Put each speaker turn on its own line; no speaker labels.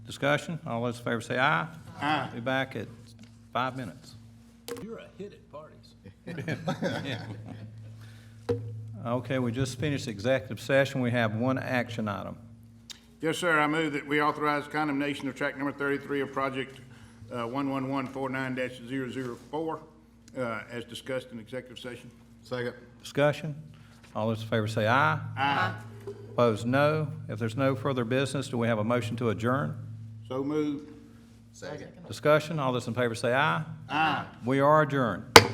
Discussion, all those in favor say aye. Aye. Be back at five minutes.
You're a hit at parties.
Okay, we just finished executive session, we have one action item.
Yes, sir, I move that we authorize condemnation of track number thirty-three of project uh, one-one-one-four-nine 4 uh, as discussed in executive session.
Second.
Discussion, all those in favor say aye. Aye. Opposed, no. If there's no further business, do we have a motion to adjourn?
So moved.
Second.
Discussion, all those in favor say aye. Aye. We are adjourned.